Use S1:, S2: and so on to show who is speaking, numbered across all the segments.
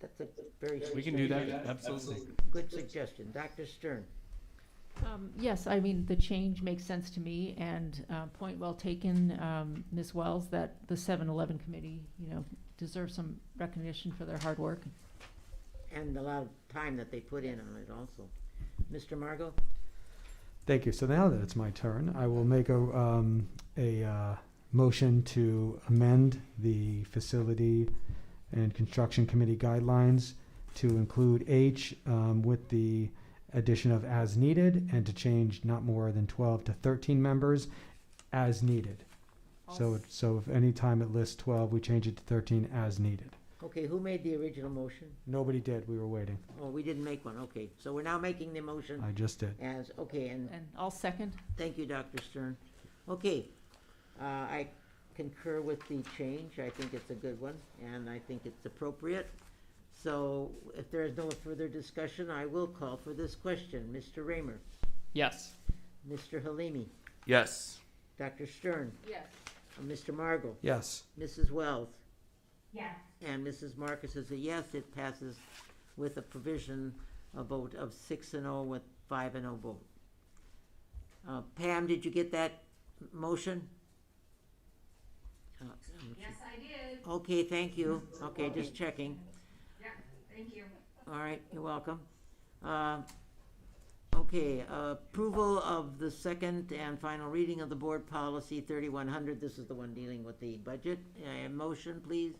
S1: That's a very
S2: We can do that, absolutely.
S1: good suggestion. Dr. Stern?
S3: Um, Yes, I mean, the change makes sense to me, and uh, point well taken, um, Ms. Wells, that the 7-Eleven committee, you know, deserves some recognition for their hard work.
S1: And a lot of time that they put in on it also. Mr. Margot?
S4: Thank you. So now that it's my turn, I will make a, um, a, uh, motion to amend the facility and construction committee guidelines to include H, um, with the addition of as needed and to change not more than twelve to thirteen members as needed. So, it- so if any time it lists twelve, we change it to thirteen as needed.
S1: Okay, who made the original motion?
S4: Nobody did. We were waiting.
S1: Oh, we didn't make one, okay. So we're now making the motion
S4: I just did.
S1: as, okay, and
S3: And I'll second.
S1: thank you, Dr. Stern. Okay, uh, I concur with the change. I think it's a good one, and I think it's appropriate. So if there is no further discussion, I will call for this question. Mr. Raymer?
S2: Yes.
S1: Mr. Halimi?
S2: Yes.
S1: Dr. Stern?
S3: Yes.
S1: Mr. Margot?
S4: Yes.
S1: Mrs. Wells?
S5: yes,
S1: And Mrs. Marcus is a yes, it passes with a provision, a vote of six and oh with five and oh vote. Uh, Pam, did you get that motion? Uh, um,
S5: yes, I did,
S1: Okay, thank you, okay, just checking,
S5: yeah, thank you.
S1: all right, you're welcome. Uh, Okay, uh, approval of the second and final reading of the board policy thirty-one hundred, this is the one dealing with the budget, uh, motion, please?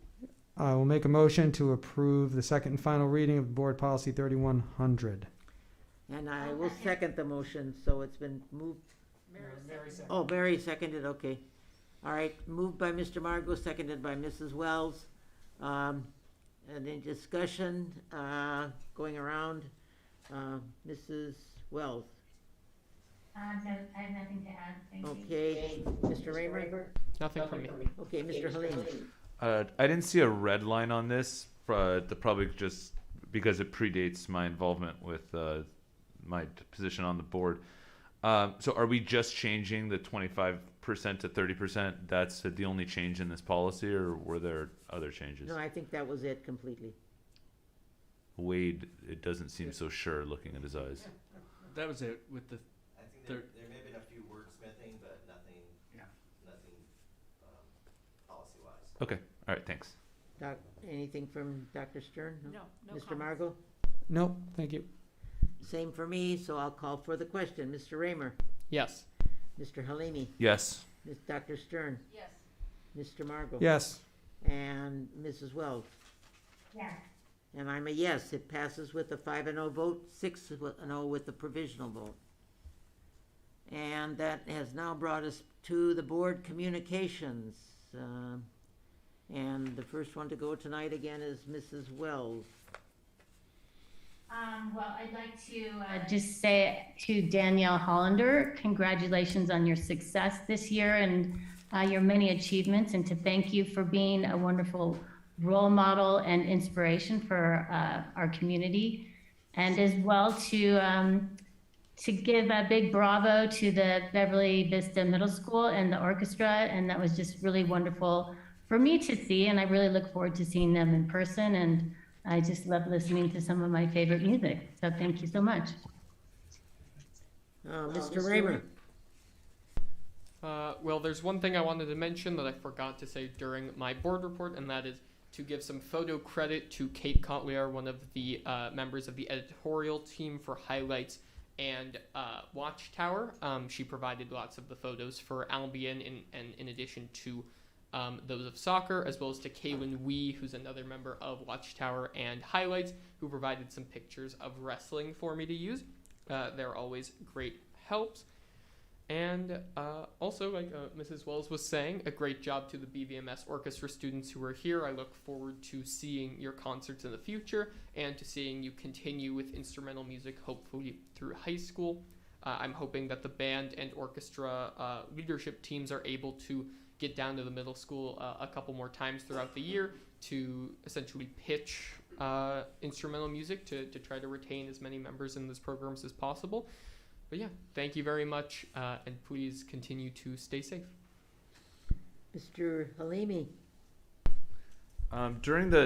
S4: I will make a motion to approve the second and final reading of Board Policy 3100.
S1: And I
S5: I'll
S1: will
S5: second.
S1: second the motion, so it's been moved. Oh, Barry seconded, okay. All right, moved by Mr. Margot, seconded by Mrs. Wells. Um, and then discussion, uh, going around, uh, Mrs. Wells,
S5: Uh, no, I have nothing to add, thank you.
S1: okay, Mr. Raymer,
S2: Nothing from me.
S1: okay, Mr. Helene.
S6: Uh, I didn't see a red line on this, but the probably just because it predates my involvement with uh, my t- position on the board. Um, so, are we just changing the twenty-five percent to thirty percent? That's the only change in this policy, or were there other changes?
S1: No, I think that was it completely.
S6: Wade, it doesn't seem so sure looking at his eyes.
S2: That was it with the,
S7: I think
S2: There-
S7: there, there may have been a few wordsmithing, but nothing,
S2: Yeah.
S7: nothing, um, policy-wise.
S6: Okay, all right, thanks.
S1: Doc, anything from Dr. Stern?
S3: No, no
S1: Mr.
S3: comment.
S1: Margot?
S4: Nope, thank you.
S1: Same for me, so I'll call for the question. Mr. Raymer,
S2: yes.
S1: Mr. Helene,
S6: Yes,
S1: Ms. Dr. Stern,
S3: Yes.
S1: Mr. Margot?
S4: Yes.
S1: And Mrs. Wells?
S5: Yes,
S1: And I'm a yes, it passes with a five and oh vote, six with- and oh with the provisional vote. And that has now brought us to the board communications. um, And the first one to go tonight again is Mrs. Wells.
S5: um, well, I'd like to, uh, just say to Danielle Hollander, congratulations on your success this year and, uh, your many achievements, and to thank you for being a wonderful role model and inspiration for, uh, our community. And as well to, um, to give a big bravo to the Beverly Vista Middle School and the orchestra, and that was just really wonderful for me to see, and I really look forward to seeing them in person, and I just love listening to some of my favorite music, so thank you so much.
S1: Uh, Mr. Raymer,
S2: Uh, well, there's one thing I wanted to mention that I forgot to say during my board report, and that is to give some photo credit to Kate Cotliar, one of the uh, members of the editorial team for highlights and uh, Watchtower. Um, she provided lots of the photos for Albion, in, and in addition to um, those of soccer, as well as to Kaylin Wee, who's another member of Watchtower and Highlights, who provided some pictures of wrestling for me to use. Uh, they're always great helps. And uh, also, like uh, Mrs. Wells was saying, a great job to the BVMS orchestra students who are here. I look forward to seeing your concerts in the future and to seeing you continue with instrumental music, hopefully through high school. Uh, I'm hoping that the band and orchestra uh, leadership teams are able to get down to the middle school uh, a couple more times throughout the year to essentially pitch uh, instrumental music to, to try to retain as many members in those programs as possible. But yeah, thank you very much, uh, and please continue to stay safe.
S1: Mr. Halimi.
S6: um, during the